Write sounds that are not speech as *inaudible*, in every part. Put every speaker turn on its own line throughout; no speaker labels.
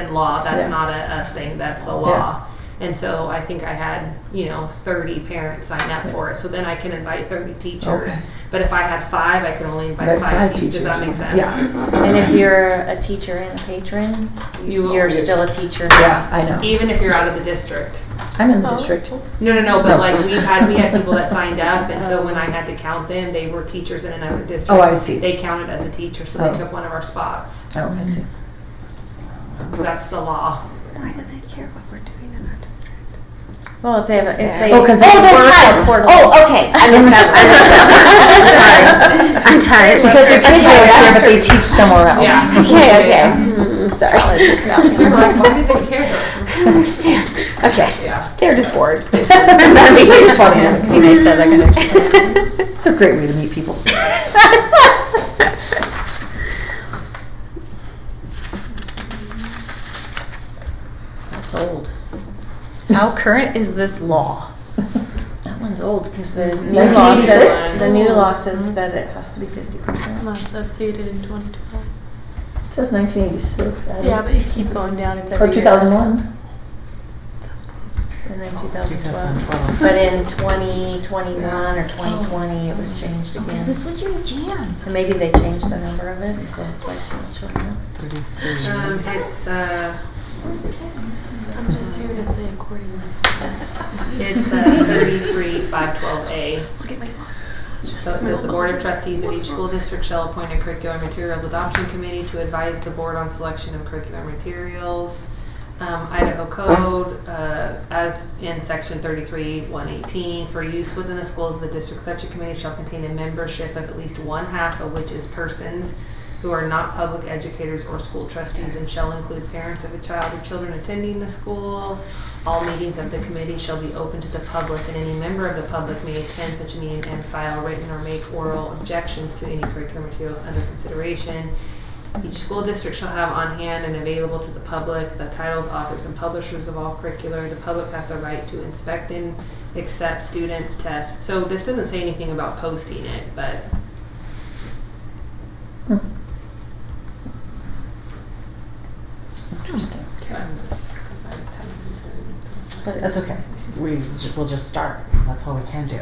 current law,
Yeah.
that's not a us thing, that's the law. And so I think I had, you know, thirty parents sign up for it, so then I can invite thirty teachers.
Okay.
But if I had five, I can only invite
Invite
five
five
teachers, does that make
teachers,
sense?
yeah.
And if you're a teacher and a patron,
You-
you're still a teacher.
Yeah, I know.
Even if you're out of the district.
I'm
Oh.
in the district.
No, no, no,
No.
but like we had, we had people that signed up and so when I had to count them, they were teachers in another district.
Oh, I see.
They counted as a teacher, so
Oh.
they took one of our spots.
Oh, I see.
That's the
*laughs*
law.
Why do they care what we're doing in our district?
Well, if they have, a- if they.
Oh, 'cause
Oh, the
work
child.
at Portland.
Oh, okay. I missed that.
*laughs*
one.
I'm
I'm sorry.
tired.
Because their kid goes there, but they teach somewhere else. *laughs*
Yeah.
Okay, okay.
Yeah.
Mm, Sorry.
We were like, why do they care?
I don't understand. Okay.
Yeah.
They're just bored.
*laughs*
They
They just wanna have a
You know, so
*laughs*
they're gonna-
*laughs* It's a great way to meet *laughs* people.
That's old.
How current is this law?
That one's old because the new law
1986?
says, the new law says that it has to be fifty percent.
Must updated in 2012.
It says 1986. I don't-
Yeah, but you keep going down. It's every
Or
year.
2001.
And then two thousand twelve. But in twenty twenty-one or twenty twenty, it was changed
Because
again.
this was your jam.
And maybe they changed the number of it, and so that's why it's not showing up.
Mm-hmm.
Um, it's, uh,
I'm just here to say accordingly.
it's, uh, thirty-three, five twelve A.
Look at my
So it says the Board of Trustees of each school district shall appoint a curriculum materials adoption committee to advise the board on selection of curriculum materials. Um, Idaho Code, uh, as in section thirty-three, one eighteen, for use within the schools of the district, such a committee shall contain a membership of at least one half of which is persons who are not public educators or school trustees and shall include parents of a child or children attending the school. All meetings of the committee shall be open to the public and any member of the public may attend such a meeting and file written or make oral objections to any curriculum materials under consideration. Each school district shall have on hand and available to the public the titles, authors, and publishers of all curricular. The public has the right to inspect and accept students' tests. So this doesn't say anything about posting it, but
Hmm. Interesting. That's okay.
we j- will just start. That's all we can do.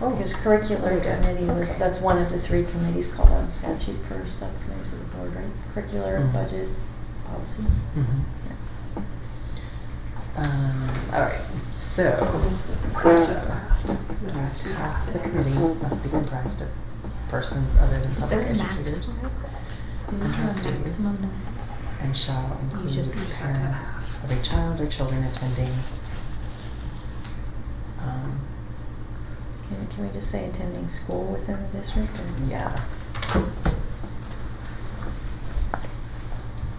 Oh.
Because Oh, curricular committee was,
Okay.
that's one of the three committees called out in statute for subcommittees of the board, right? Curricular,
Mhm.
budget, policy.
Mm-hmm. Um, all right. So
It
must have the committee must be comprised of persons other than
Is
public
there a max
educators
for it?
and *laughs* trustees,
Maximum number?
and shall include
just- you just have to
parents of a child or children attending. Um,
Can, can we just say attending school within the district or?
yeah.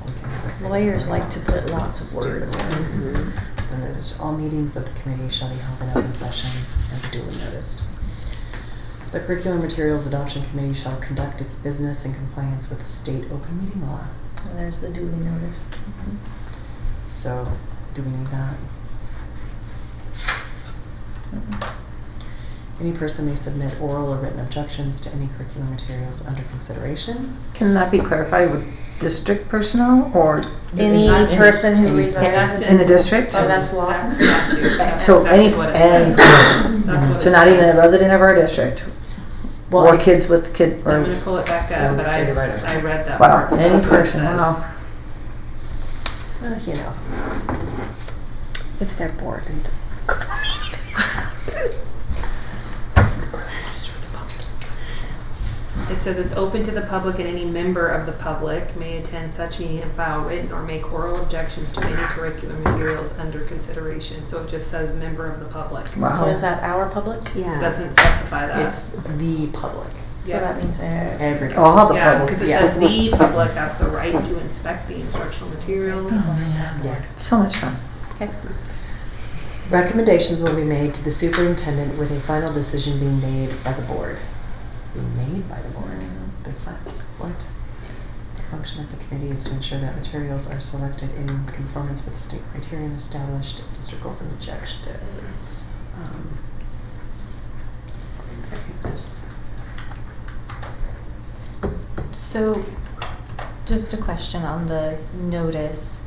We can have a second
Lawyers
one.
like to put lots of words.
Students. mm-hmm. And there's, all meetings of the committee shall be held in open session and duly noticed. The curriculum materials adoption committee shall conduct its business in compliance with the state open meeting law.
And there's the duly noticed. Mm-hmm.
So, do we need that?
Mm-hmm.
Any person may submit oral or written objections to any curriculum materials under consideration.
Can that be clarified with district personnel or
Any
Any-
person who
any-
resides
that's
in.
in the district?
Oh, that's law.
That's statute. That's
So
exactly
any-
what it
any-
says. That's what
So
it
not even a
says.
resident of our district?
Well,
Or
I-
kids with kid,
I'm gonna
or,
pull it back
Yeah,
up, but I,
say it right up.
I read that
wow,
part.
any
That's what it
person,
says.
wow.
Uh, You know.
If they're bored and just.
It says it's open to the public and any member of the public may attend such meeting and file written or make oral objections to any curriculum materials under consideration. So it just says member of the public.
So is
Wow.
that our public?
It
Yeah.
Doesn't specify that.
It's the public,
So that means, uh,
everybody.
All the
Yeah, because
public,
it
yeah.
says the public has the right to inspect the instructional materials.
Oh.
Yeah.
*laughs* so much fun.
Recommendations will be made to the superintendent with a final decision being made by the board. Being made by the board? The fuck, what? The function of the committee is to ensure that materials are selected in conformance with the state criterion established, district goals and objectives. Um, I think this-
So, just a question on the notice.